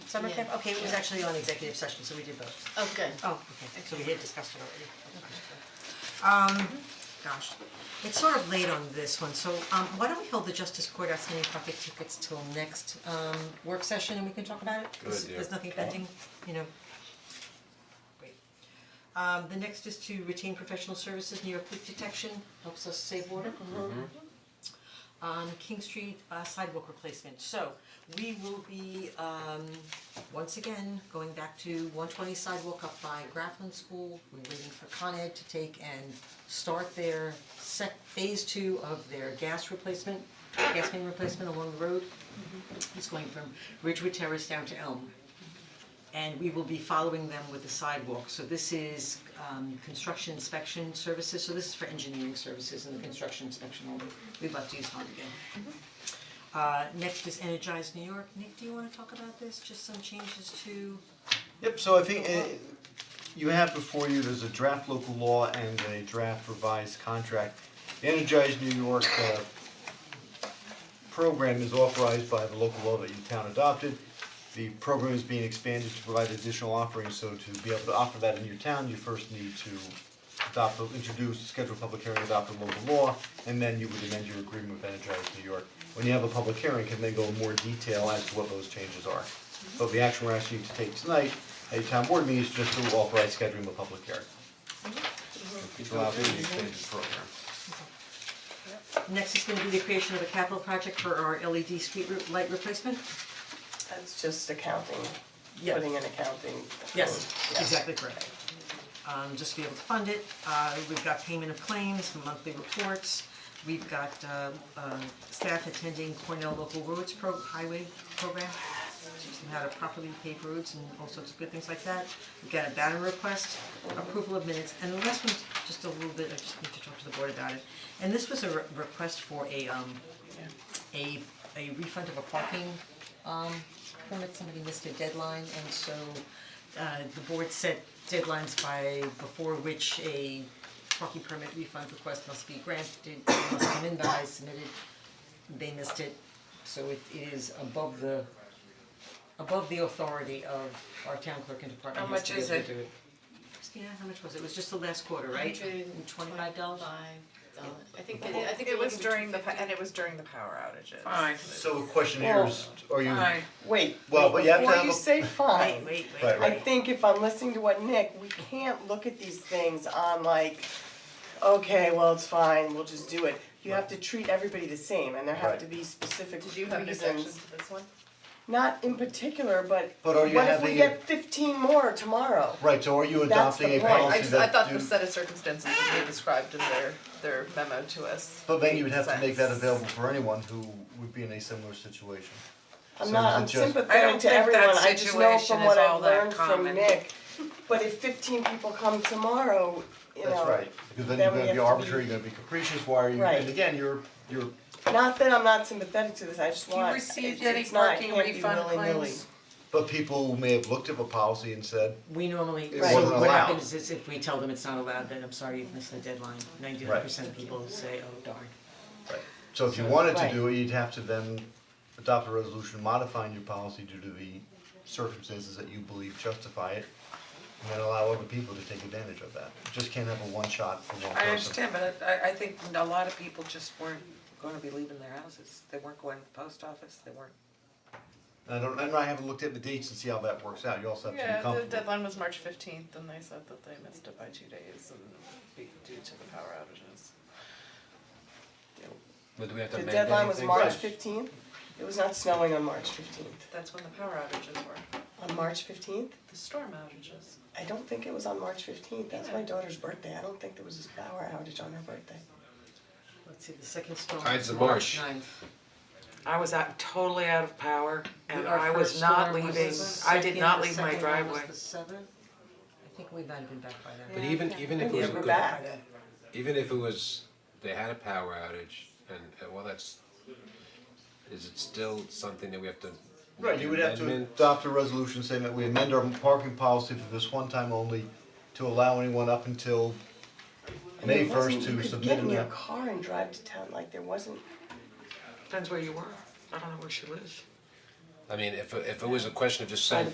summer Yeah. camp, okay, it was actually on executive session, so we did both. Oh, good. Oh, okay, so we had discussed it already. Um, gosh, it's sort of late on this one, so um why don't we hold the justice court outstanding traffic tickets till next um work session and we can talk about it? 'Cause Good idea. There's nothing pending, you know. Great. Um the next is to retain professional services, New York leak detection, helps us save water. Mm-hmm. Um King Street uh, sidewalk replacement, so we will be um once again, going back to one twenty sidewalk up by Grafflin School, we're waiting for Con Ed to take and start their sec, phase two of their gas replacement, gas main replacement along the road. It's going from Ridgewood Terrace down to Elm. And we will be following them with the sidewalk, so this is um construction inspection services, so this is for engineering services and the construction inspection only, we'd love to use Hond again. Uh next is Energize New York, Nick, do you wanna talk about this, just some changes to, Yep, so I think uh, you have before you, there's a draft local law and a draft revised contract. Energize New York uh, program is authorized by the local law that your town adopted. The program is being expanded to provide additional offerings, so to be able to offer that in your town, you first need to adopt, the- introduce, schedule a public hearing, adopt the local law, and then you would amend your agreement with Energize New York. When you have a public hearing, can they go in more detail as to what those changes are? But the action we're asking you to take tonight at your town board meeting is just to authorize scheduling a public hearing. To allow for the expanded program. next is gonna be the creation of a capital project for our LED street re- light replacement? That's just accounting, Yeah. putting in accounting. Yes, Yeah. exactly correct. Um, just to be able to fund it, uh, we've got payment of claims, monthly reports, we've got, uh, um, staff attending Cornell Local Roads Pro, Highway Program. Teaching how to properly pave roads and all sorts of good things like that. We've got a banner request, approval of minutes, and the last one's just a little bit, I just need to talk to the board about it. And this was a re- request for a, um, a, a refund of a parking, um, permit, somebody missed a deadline, and so, uh, the board set deadlines by, before which a parking permit refund request must be granted, it must come in by, submitted, they missed it, so it is above the, above the authority of our town clerk and department How heads much to be is able it? to do it. Christina, how much was it? It was just the last quarter, right? Hundred Twenty-five dollars? I think they, I think they It was gave me during the, pa- 250. and it was during the power outages. Fine, So the question here is, are you, fine, wait, Well, wait, but you have to before have you a- say Wait, fine, wait, wait. Right, I think if I'm listening to what Nick, we can't look at these things on like, okay, well, it's fine, we'll just do it. You have to treat everybody the same and there have Right. to be specific reasons. Did you have an objection to this one? Not in particular, but But are you what if we having- get fifteen more tomorrow? right, so are you That's the adopting a point. I I policy just, I that thought do- the set of circumstances that they described in their, their memo to us. But then you would have to make that sense. available for anyone who would be in a similar situation. I'm So not, is it I'm just- I sympathetic don't to think everyone, that I just know situation from is what all I've that learned from common. Nick. But if fifteen people come tomorrow, you know. That's right, because then then you're we gonna have be to arbitrary, be- you're gonna be capricious, why are you, Right. and again, you're, you're, Not that I'm not sympathetic to this, I just You want, it's received it's not, any it can't be parking willy-nilly. refund claims? but people may have looked at the policy and said, We normally, It so wasn't what allowed. happens is if we tell them it's not allowed, then I'm sorry, you've missed the deadline, ninety-nine percent of people say, oh darn. so if you wanted to do it, you'd have to then adopt a resolution modifying your policy due to the circumstances that you believe justify it, and then allow other people to take advantage of that, you just can't have a one shot for one person. I understand, but I I think a lot of people just weren't gonna be leaving their houses, they weren't going to the post office, they weren't. I don't, I know I haven't looked at the dates and see how that works out, you also have to be Yeah, the comfortable. deadline was March fifteenth and they said that they missed it by two days and be due to the power outages. But do we have to The amend deadline was anything? March fifteenth, it was not snowing on March fifteenth, That's when the power outages were, on March fifteenth? the storm outages. I don't think it was on March fifteenth, that's my Yeah. daughter's birthday, I don't think there was a power outage on her birthday. Let's see, the second storm. Tides of March March. 9th. I was out, totally out of power, and Our I first was not storm was the leaving, I did second, not the leave my second one driveway. was the seventh. I think we might have been back by then. But even even if it was Yeah, a we're good, back. even if it was, they had a power outage and and well, that's, is it still something that we have to Right, make you an would have to amendment? adopt a resolution saying that we amend our parking policy for this one time only to allow anyone up until May first I mean, it to submit wasn't, you could get in an your app. car and drive to town, like there wasn't, Depends where you were, I don't know where she lives. I mean, if if it was a question of just saying,